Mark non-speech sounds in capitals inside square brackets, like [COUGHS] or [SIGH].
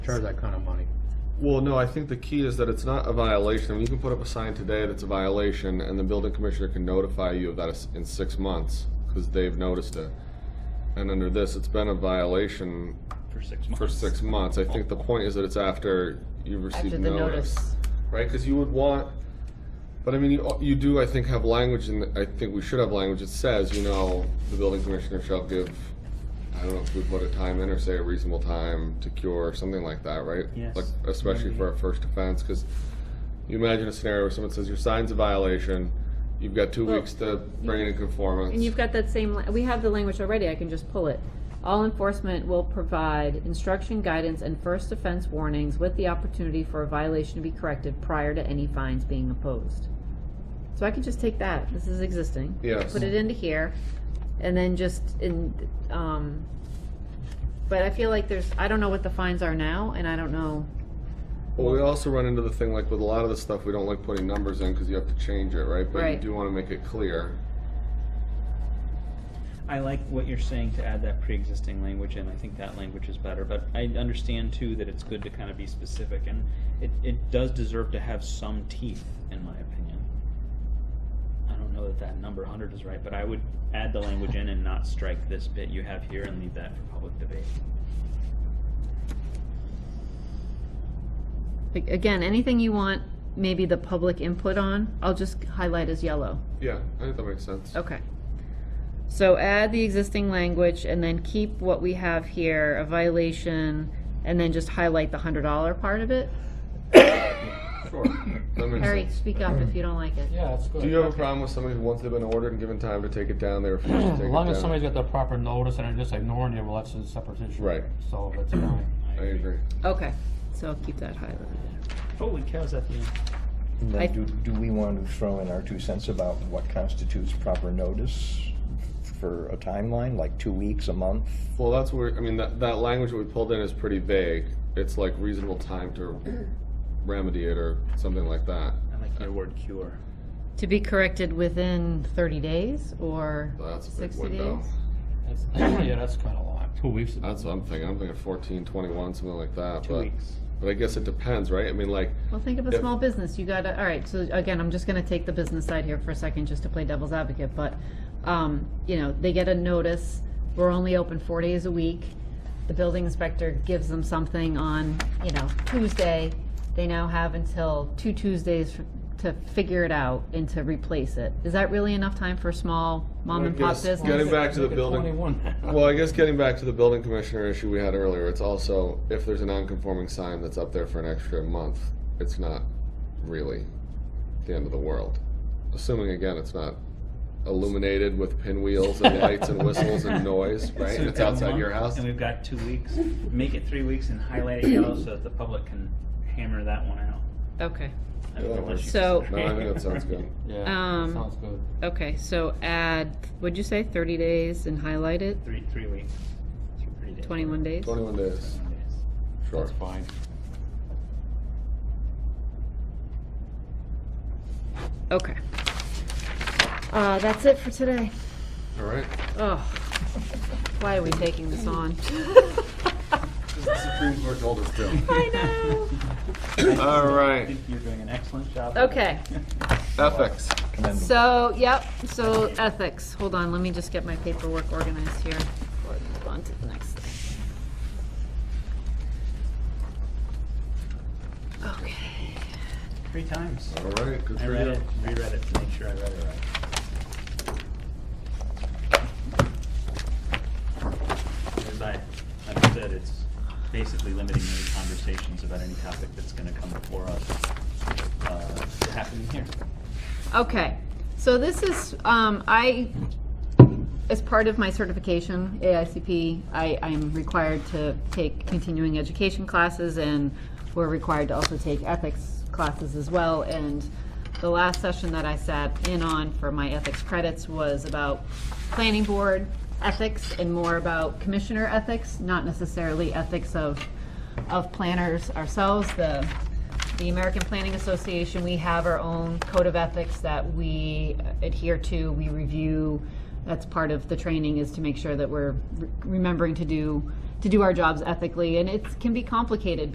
charge that kind of money. Well, no, I think the key is that it's not a violation. You can put up a sign today that's a violation, and the building commissioner can notify you of that is- in six months, because they've noticed it. And under this, it's been a violation for six months. for six months. I think the point is that it's after you've after received the notice. right? Because you would want, but I mean, you, you do, I think, have language, and I think we should have language that says, you know, the building commissioner shall give, I don't know if we put a time in or say a reasonable time to cure, or something like that, right? Yes. Like, especially for a first offense, because you imagine a scenario where someone says your sign's a violation, you've got two Well, weeks to bring it in conformance. And you've got that same, la- we have the language already, I can just pull it. All enforcement will provide instruction, guidance, and first offense warnings with the opportunity for a violation to be corrected prior to any fines being imposed. So I can just take that, this is existing. Yes. Put it into here, and then just in, um, but I feel like there's, I don't know what the fines are now, and I don't know, Well, we also run into the thing, like with a lot of the stuff, we don't like putting numbers in because you have to change it, right? But you Right. do want to make it clear. I like what you're saying to add that pre-existing language in. I think that language is better, but I understand too that it's good to kind of be specific, and it, it does deserve to have some teeth, in my opinion. I don't know that that number hundred is right, but I would add the language in and not strike this bit you have here and leave that for public debate. Like, again, anything you want, maybe the public input on, I'll just highlight as yellow. Yeah, I think that makes sense. Okay. So add the existing language and then keep what we have here, a violation, and then just highlight the hundred dollar part of it? [COUGHS] Sure, that makes Harry, sense. speak up if you don't like it. Yeah, that's good. Do you have a problem with somebody who, once they've been ordered and given time to take it down, they [CLEARS THROAT] refuse to take it down? As long as somebody's got the proper notice and they're just ignoring you, well, that's a separate issue. Right. So that's fine. I agree. Okay, so I'll keep that highlighted. Holy cow, is that the end? And I- then do, do we want to throw in our two cents about what constitutes proper notice for a timeline, like two weeks, a month? Well, that's where, I mean, that, that language that we pulled in is pretty vague. It's like reasonable [CLEARS THROAT] time to remedy it or something like that. I like your word cure. To be corrected within thirty days or That's a big sixty window. days? That's- [COUGHS] Yeah, that's kind of long. Two weeks. That's what I'm thinking. I'm thinking fourteen, twenty-one, something like that, Two but, weeks. but I guess it depends, right? I mean, like, Well, think of a Yeah. small business, you gotta, all right, so again, I'm just gonna take the business side here for a second, just to play devil's advocate, but, um, you know, they get a notice, we're only open four days a week, the building inspector gives them something on, you know, Tuesday, they now have until two Tuesdays f- to figure it out and to replace it. Is that really enough time for a small mom I and pop guess getting business? back to the Make it building. Twenty-one. Well, I guess getting back to the building commissioner issue we had earlier, it's also, if there's a non-conforming sign that's up there for an extra month, it's not really the end of the world. Assuming, again, it's not illuminated with pinwheels [LAUGHS] and lights and whistles and [LAUGHS] noise, right? So And we've it's got a outside month, your house. And we've got two weeks. Make it three weeks and highlight it [COUGHS] yellow so that the public can hammer that one out. Okay, I don't Yeah, know what you so- No, said. I think that sounds good. Yeah, Um, sounds good. okay, so add, would you say, thirty days and highlight it, [LAUGHS] Three, three weeks. Three days. twenty-one days? Twenty-one days, Twenty-one days. sure. That's fine. Okay. Uh, that's it for today. All right. Oh, why are we taking this on? The Supreme Court told us to. [LAUGHS] I All know. [LAUGHS] I right, think you're doing an excellent job. Okay, ethics. Commendable. so, yep, so ethics. Hold on, let me just get my paperwork organized here before I move on to the next thing. Okay. [LAUGHS] Three times. All right, good I for read you. it, reread it to make sure I read it right. As I understood, it's basically limiting any conversations about any topic that's gonna come before us, uh, to happening here. Okay, so this is, um, I, as part of my certification, AICP, I, I'm required to take continuing education classes and we're required to also take ethics classes as well. And the last session that I sat in on for my ethics credits was about planning board ethics and more about commissioner ethics, not necessarily ethics of, of planners ourselves. The, the American Planning Association, we have our own code of ethics that we adhere to, we review. That's part of the training is to make sure that we're re- remembering to do, to do our jobs ethically. And it can be complicated